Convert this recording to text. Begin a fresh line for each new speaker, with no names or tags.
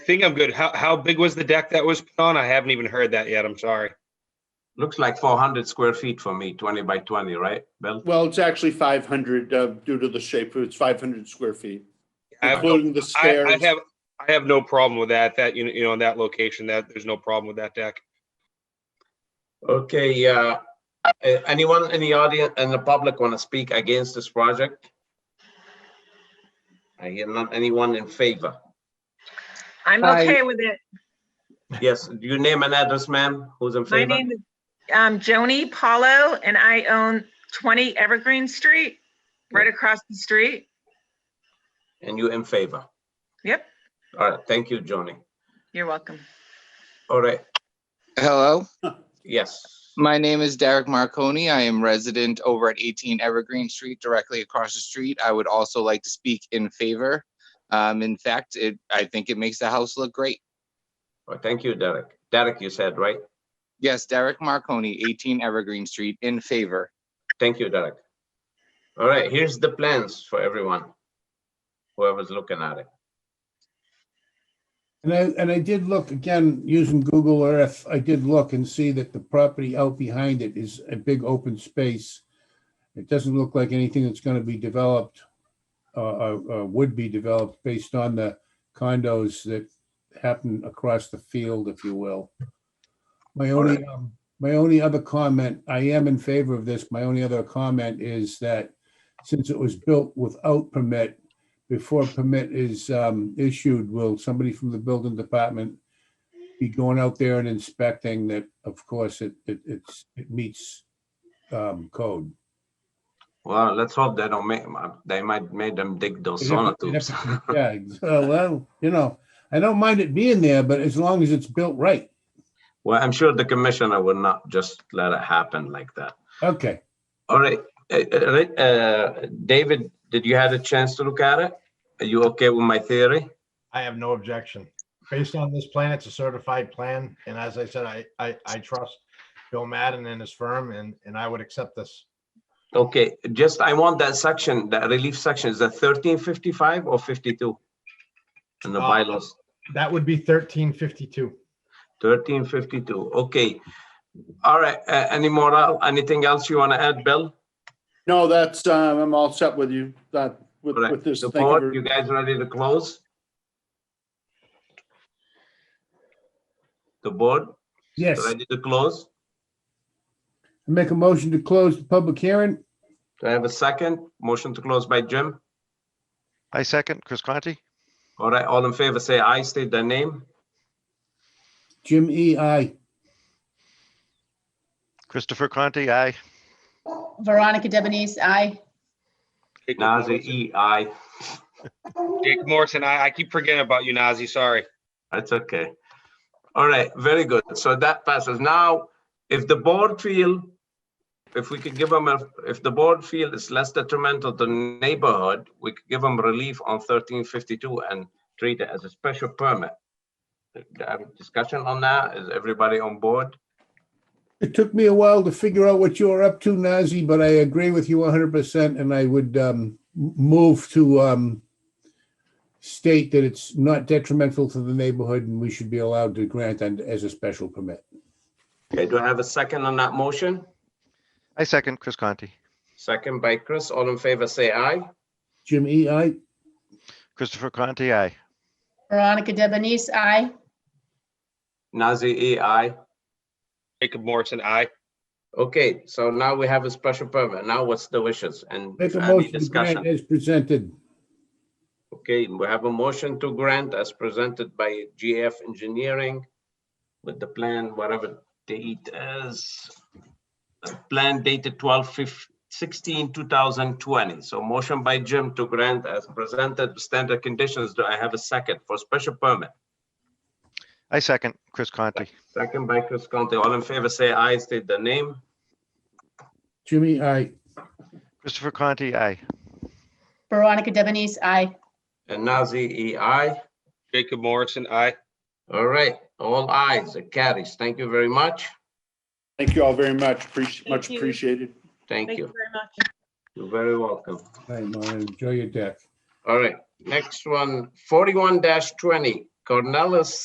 think I'm good. How, how big was the deck that was put on? I haven't even heard that yet. I'm sorry.
Looks like four hundred square feet for me, twenty by twenty, right, Bill?
Well, it's actually five hundred, uh, due to the shape, it's five hundred square feet,
I have, no-
including the
I, I
stairs.
have, I have no problem with that, that, you know, you know, in that location, that, there's no problem with that deck.
Okay, uh, a- anyone in the audience and the public want to speak against this project? I hear not anyone in favor.
I'm
Hi.
okay with it.
Yes, do you name and address, ma'am? Who's in
My
favor?
name is um, Joni Paulo, and I own 20 Evergreen Street, right across the street.
And you in favor?
Yep,
All right, thank you, Johnny.
you're welcome.
All right,
Hello,
yes.
my name is Derek Marconi. I am resident over at 18 Evergreen Street, directly across the street. I would also like to speak in favor. Um, in fact, it, I think it makes the house look great.
Well, thank you, Derek. Derek, you said, right?
Yes, Derek Marconi, 18 Evergreen Street, in favor.
Thank you, Derek. All right, here's the plans for everyone. Whoever's looking at it.
And I, and I did look, again, using Google Earth, I did look and see that the property out behind it is a big open space. It doesn't look like anything that's gonna be developed, uh, uh, uh, would be developed based on the condos that happen across the field, if you will. My only, um, my only other comment, I am in favor of this, my only other comment is that since it was built without permit, before a permit is um, issued, will somebody from the building department be going out there and inspecting that, of course, it, it, it's, it meets um, code?
Well, let's hope they don't make, uh, they might make them dig those
They'd have to- they'd
sonotubes.
have to- Yeah, ex- uh, well, you know, I don't mind it being there, but as long as it's built right.
Well, I'm sure the commissioner would not just let it happen like that.
Okay,
All right, uh, uh, right, uh, David, did you have a chance to look at it? Are you okay with my theory?
I have no objection. Based on this plan, it's a certified plan, and as I said, I, I, I trust Bill Madden and his firm, and, and I would accept this.
Okay, just, I want that section, that relief section, is that thirteen fifty-five or fifty-two? In the
Uh,
bylaws,
That would be thirteen fifty-two.
thirteen fifty-two, okay. All right, uh, any more, uh, anything else you want to add, Bill?
No, that's, um, I'm all set with you, that, with,
All right,
with this.
The
thank you
board,
very-
you guys ready to close? The board,
yes,
ready to close?
make a motion to close the public hearing?
Do I have a second? Motion to close by Jim?
I second Chris Conti.
All right, all in favor, say aye, state their name.
Jim E. I.
Christopher Conti, aye.
Veronica Debonese, aye.
Jake
Nazir,
Morrison-
E, aye.
Jake Morrison, I, I keep forgetting about you, Nazi, sorry.
That's okay. All right, very good. So that passes. Now, if the board feel, if we could give them, a, if the board feel it's less detrimental to neighborhood, we could give them relief on thirteen fifty-two and treat it as a special permit. Do you have Discussion on that? Is everybody on board?
It took me a while to figure out what you were up to, Nazi, but I agree with you 100% and I would um, m- move to um, state that it's not detrimental to the neighborhood and we should be allowed to grant and as a special permit.
Okay, do I have a second on that motion?
I second Chris Conti.
Second by Chris. All in favor, say aye.
Jim E. I,
Christopher Conti, aye.
Veronica Debonese, aye.
Nazir, E, aye.
Jacob Morrison, I.
Okay, so now we have a special permit. Now what's the wishes and
make a
any
motion to grant
discussion?
as presented.
Okay, we have a motion to grant as presented by GF Engineering with the plan, whatever date is. the Plan dated 2020. So motion by Jim to grant as presented standard conditions. Do I have a second for special permit?
I second Chris Conti.
Second by Chris Conti. All in favor, say aye, state the name.
Jimmy, I,
Christopher Conti, aye.
Veronica Debonese, aye.
And Nazir, E, aye.
Jacob Morrison, I.
All right, all eyes. it carries. Thank you very much.
Thank you all very much, appreciate, much
Thank you.
appreciated.
Thank
Thank you
you.
very much.
You're very welcome.
Hi, Mona, enjoy your deck.
All right, next one, 41 twenty, Cornelis